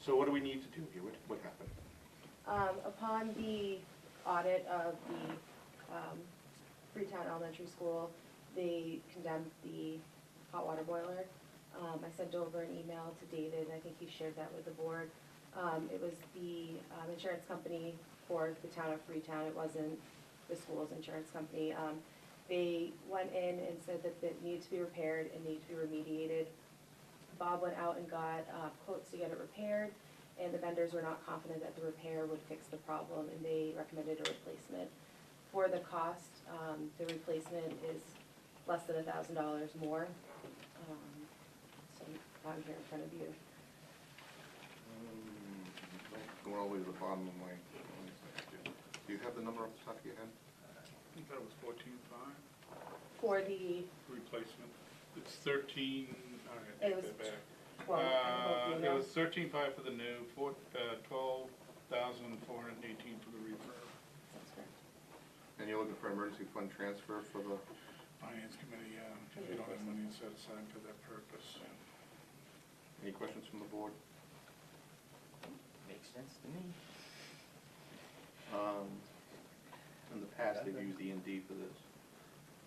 So what do we need to do here? What, what happened? Um, upon the audit of the, um, Freetown Elementary School, they condemned the hot water boiler. Um, I sent over an email to David, and I think he shared that with the board. Um, it was the, um, insurance company for the town of Freetown, it wasn't the school's insurance company. Um, they went in and said that it needed to be repaired and needed to be remediated. Bob went out and got, uh, quotes to get it repaired and the vendors were not confident that the repair would fix the problem, and they recommended a replacement. For the cost, um, the replacement is less than a thousand dollars more. Um, So I'm here in front of you. Um, Going all the way to the bottom of my, do you have the number off the top of your head? I think that was fourteen five, For the, replacement. It's thirteen, all right, It I was take that back. well, I Uh, don't it know was if thirteen five for the new, four, uh, twelve thousand four hundred and eighteen for the refurb. And you're looking for emergency fund transfer for the, Finance committee, yeah, because we don't have money set aside for that purpose. any questions from the board? Makes sense to me. Um, In the past, they've used E and D for this.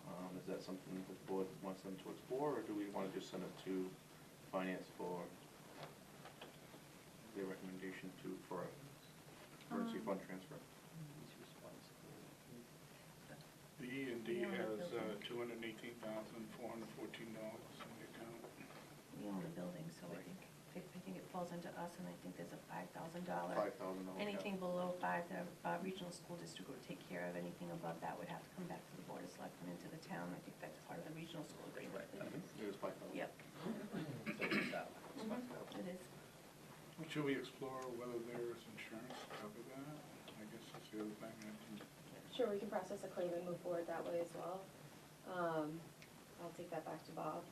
Um, Is that something that the board wants them to explore, or do we want to just send it to finance for their recommendation to, for a emergency Um, fund transfer? The E and D Yeah, has building. two hundred and eighteen thousand four hundred and fourteen dollars in the account. We own the building, so I think, I think it falls into us, and I think there's a five thousand dollar. Five oh, thousand dollars. Anything below five, the uh, regional school district would take care of, anything above that would have to come back to the board of selectmen into the town, I think that's part of the regional school agreement. It is five thousand. Yep, uh, it is. Should we explore whether there is insurance to cover that? I guess that's the other thing I can Sure, we can process a claim and move forward that way as well. Um, I'll take that back to Bob.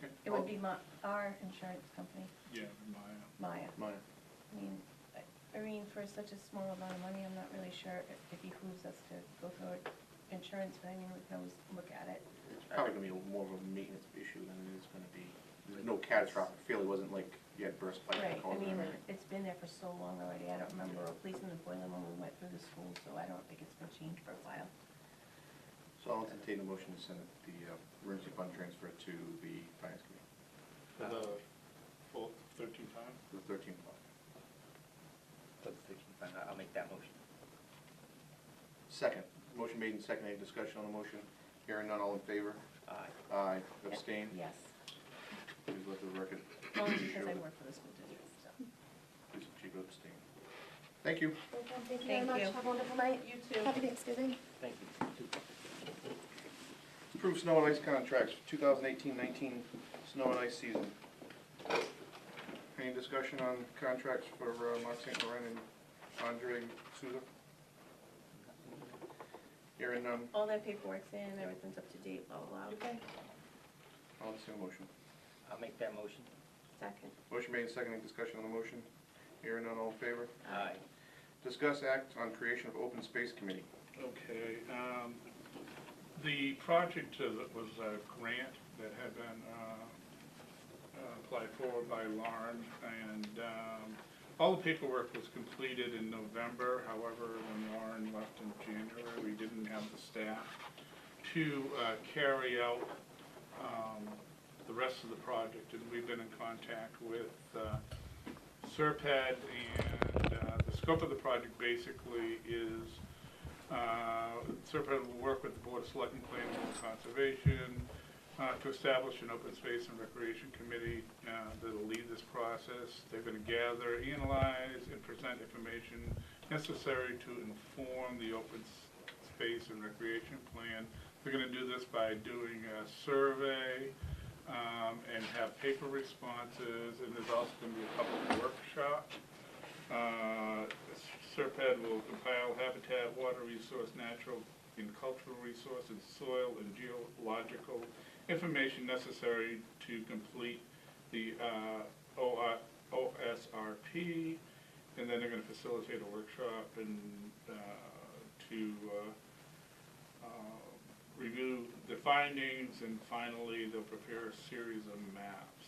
Okay. It would be my, our insurance company, Yeah, Maya. Maya. Mine. I mean, I- Irene, for such a small amount of money, I'm not really sure if it behooves us to go for insurance, but I mean, we can always look at it. It's probably gonna be more of a maintenance issue than it is gonna be, there's no catastrophic failure, it wasn't like you had burst pipe Right, and cause. I mean, it's been there for so long already, I don't remember replacing the boiler when we went through the school, so I don't think it's been changed for a while. So I'll entertain a motion to send it- the uh, emergency fund transfer to the finance committee, For the full thirteen five? the thirteen fund. I'll make that motion. Second, motion made and seconded, any discussion on the motion? Hearing none, all in favor? Aye. Aye, abstain, Yes, please let the record only show because I that- work for the school district, so. Please, she votes abstain. Thank you. Okay, thank you very Thank much. you. Have a wonderful night. You too. Happy Thanksgiving. Thank you. Approved snow and ice contracts for 2018-19 snow and ice season. Any discussion on contracts for uh, Mark St. Laurent and Andre Souza? Hearing none, All that paperwork's in, everything's up to date, blah, blah, blah. Okay. I'll entertain a motion. I'll make that motion. Second. Motion made and seconded, discussion on the motion. Hearing none, all in favor? Aye. Discuss act on creation of open space committee. Okay, um, the project uh, that was a grant that had been, uh, uh, applied for by Lauren, and, um, all the paperwork was completed in November, however, when Lauren left in January, we didn't have the staff to, uh, carry out, um, the rest of the project, and we've been in contact with, uh, Serpad, and, uh, the scope of the project basically is, uh, Serpent will work with the Board of Selectmen, Planning and Conservation uh, to establish an open space and recreation committee uh, that'll lead this process. They're going to gather, analyze, and present information necessary to inform the open s- space and recreation plan. They're going to do this by doing a survey um, and have paper responses, and there's also going to be a public workshop. Uh, Serpad will compile habitat, water resource, natural and cultural resources, soil and geological information necessary to complete the uh, OR OSRP. And then they're gonna facilitate a workshop and uh, to uh, uh, review the findings. And finally, they'll prepare a series of maps.